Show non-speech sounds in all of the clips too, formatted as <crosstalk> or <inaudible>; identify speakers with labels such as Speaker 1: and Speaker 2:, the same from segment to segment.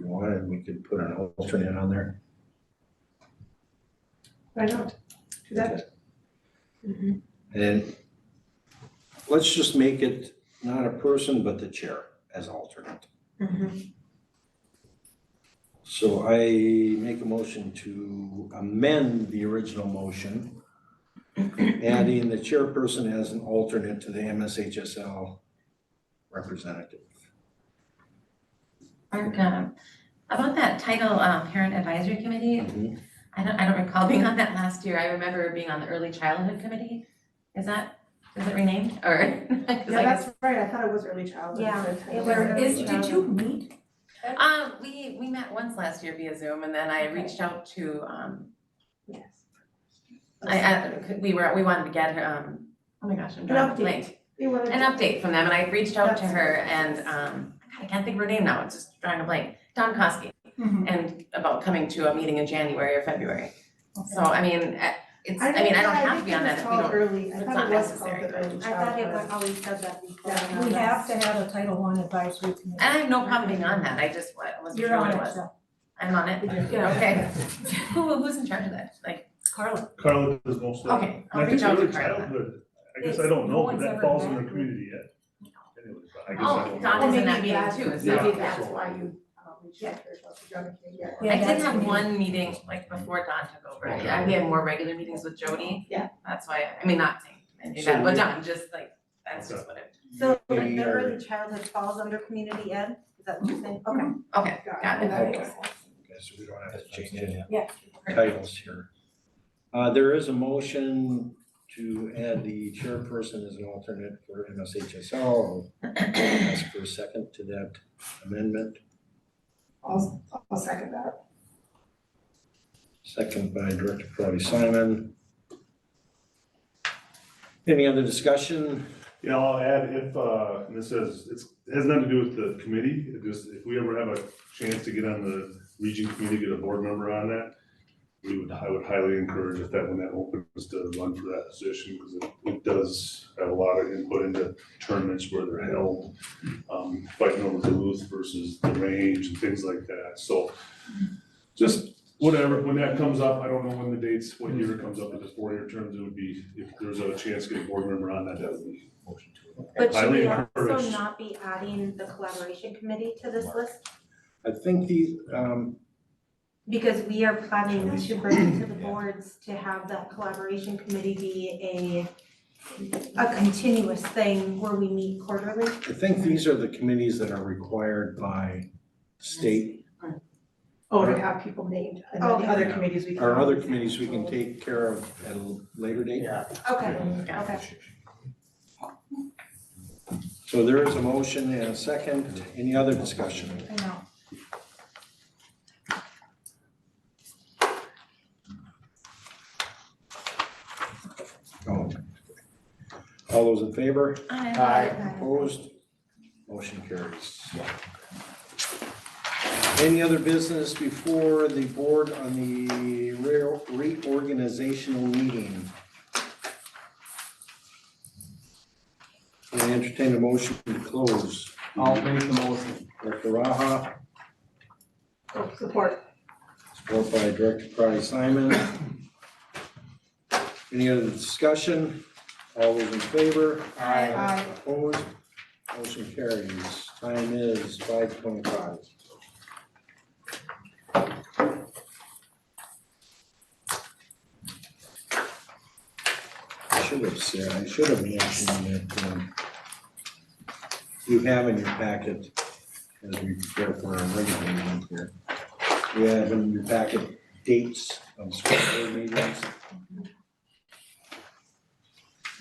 Speaker 1: wanted, we could put an alternate on there.
Speaker 2: Why not? Do that.
Speaker 3: Mm-hmm,
Speaker 2: Mhm.
Speaker 1: And let's just make it not a person, but the chair as alternate.
Speaker 3: mm-hmm.
Speaker 2: Mhm.
Speaker 1: So I make a motion to amend the original motion, adding the chairperson as an alternate to the MSHSL representative.
Speaker 4: Mark, um, about that title, um, parent advisory committee, I don't, I don't recall <laughs> being on that last year, I remember being on the early childhood committee. Is that, is it renamed, or? <laughs> 'cause I
Speaker 2: Yeah,
Speaker 4: guess-
Speaker 2: that's right, I thought it was early childhood.
Speaker 3: Yeah,
Speaker 2: but I
Speaker 3: it
Speaker 2: don't
Speaker 3: was-
Speaker 2: know.
Speaker 3: is- did you meet?
Speaker 4: Um, we, we met once last year via Zoom, and then I reached out to, um,
Speaker 2: Yes.
Speaker 4: I, I, we were, we wanted to get her, um, oh my gosh, I'm drawing a
Speaker 2: update.
Speaker 4: blank.
Speaker 2: You wanted to-
Speaker 4: an update from them, and I reached out to
Speaker 2: That's
Speaker 4: her
Speaker 2: right.
Speaker 4: and, um, God, I can't think of her name now, it's just drawing a blank, Don Kosky.
Speaker 3: Mhm.
Speaker 4: And about coming to a meeting in January or February, so
Speaker 3: Okay.
Speaker 4: I mean, eh, it's, I mean, I don't have to be on that if we don't.
Speaker 2: early, I
Speaker 4: it's
Speaker 2: thought
Speaker 4: not
Speaker 2: it was called
Speaker 4: necessary.
Speaker 2: the early
Speaker 3: I thought it was
Speaker 2: childhood.
Speaker 3: always said that before.
Speaker 2: Yeah.
Speaker 3: We have to have a Title I advisory committee.
Speaker 4: And I have no problem being on that, I just, what, wasn't
Speaker 3: You're
Speaker 4: sure
Speaker 3: on
Speaker 4: what it
Speaker 3: it,
Speaker 4: was,
Speaker 3: so.
Speaker 4: I'm on it,
Speaker 3: Yeah.
Speaker 4: okay. <laughs> Who, who's in charge of that, like,
Speaker 3: Carla.
Speaker 5: Carla does most of that.
Speaker 4: okay,
Speaker 5: And
Speaker 4: I'll
Speaker 5: I think
Speaker 4: reach out to
Speaker 5: early
Speaker 4: Carla.
Speaker 5: childhood, I guess
Speaker 3: It's-
Speaker 5: I don't
Speaker 3: no
Speaker 5: know, but
Speaker 3: one's ever
Speaker 5: that falls
Speaker 3: met
Speaker 5: in the
Speaker 3: her.
Speaker 5: community yet. Anyway, but I guess I
Speaker 4: Oh,
Speaker 5: don't know.
Speaker 4: Don was in that
Speaker 2: Maybe
Speaker 4: meeting
Speaker 2: that-
Speaker 4: too,
Speaker 5: Yeah.
Speaker 4: so.
Speaker 2: Maybe that's why you uh, reached out to her, so she joined the- yeah.
Speaker 4: I
Speaker 3: Yeah,
Speaker 4: did
Speaker 3: that's
Speaker 4: have
Speaker 3: me.
Speaker 4: one meeting, like, before Don took over, yeah, we had more regular meetings with Jody.
Speaker 2: Yeah.
Speaker 4: That's why, I mean, not saying, I knew
Speaker 1: So
Speaker 4: that, but
Speaker 1: we-
Speaker 4: Don, just like, that's just what it,
Speaker 3: So the
Speaker 1: We
Speaker 3: the
Speaker 1: are-
Speaker 3: early childhood falls under community ed, is that what you're saying? Okay.
Speaker 4: okay, got it.
Speaker 2: Mm-hmm.
Speaker 1: Okay.
Speaker 2: Got
Speaker 1: Okay, so we don't have to change any
Speaker 3: Yeah.
Speaker 1: titles here. Uh, there is a motion to add the chairperson as an alternate for MSHSL. Ask for a second to that amendment,
Speaker 2: I'll, I'll second that.
Speaker 1: second by Director Crowdy Simon. Any other discussion?
Speaker 5: Yeah, I'll add if, uh, and this says, it's, it has nothing to do with the committee, it just, if we ever have a chance to get on the region committee, get a board member on that, we would, I would highly encourage if that, when that opens to run for that position, because it, it does have a lot of input into tournaments where they're held, um, fighting over Duluth versus the range and things like that, so just whatever, when that comes up, I don't know when the dates, what year it comes up, but the four-year terms, it would be, if there's a chance to get a board member on that, that would be
Speaker 3: But should
Speaker 5: Highly
Speaker 3: we also
Speaker 5: encouraged.
Speaker 3: not be adding the collaboration committee to this list?
Speaker 1: I think the, um,
Speaker 3: Because we are planning to bring to the
Speaker 1: Yeah.
Speaker 3: boards to have that collaboration committee be a, a continuous thing where we meet quarterly.
Speaker 1: I think these are the committees that are required by state.
Speaker 2: Oh, to have people named, and then the other committees we can.
Speaker 1: Our other committees we can take care of at a later date.
Speaker 3: Okay,
Speaker 4: Yeah.
Speaker 3: okay.
Speaker 1: So there is a motion and a second. Any other discussion?
Speaker 3: I know.
Speaker 1: No. All those in favor?
Speaker 4: Aye.
Speaker 1: Opposed? Motion carries. Any other business before the board on the re- reorganizational meeting? Can I entertain a motion to close?
Speaker 6: I'll make the motion.
Speaker 1: Director Raha,
Speaker 2: Oh, Support.
Speaker 1: support by Director Crowdy Simon. Any other discussion? All those in favor?
Speaker 2: Aye.
Speaker 1: Opposed? Motion carries. Time is five twenty-five. I should have said, I should have mentioned that, um, you have in your packet, as we prepare for our regular meeting here, you have in your packet dates of school board meetings.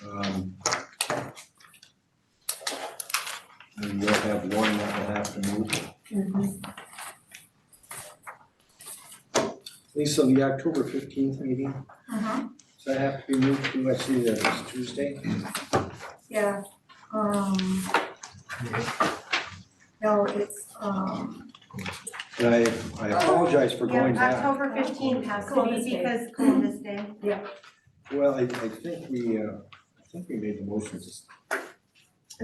Speaker 1: Um, and we'll have one that will have to move. Lisa, the October fifteenth meeting,
Speaker 3: Uh-huh.
Speaker 1: does that have to be moved to, I see that it's Tuesday?
Speaker 3: Yeah, um. No, it's, um.
Speaker 1: And I, I apologize for going back.
Speaker 3: October fifteenth has to be because Columbus Day.
Speaker 1: Well, I, I think we, uh, I think we made the motion to s-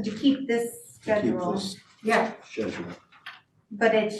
Speaker 3: To keep this
Speaker 1: to keep
Speaker 3: schedule,
Speaker 1: this
Speaker 2: Yeah,
Speaker 1: schedule.
Speaker 3: but it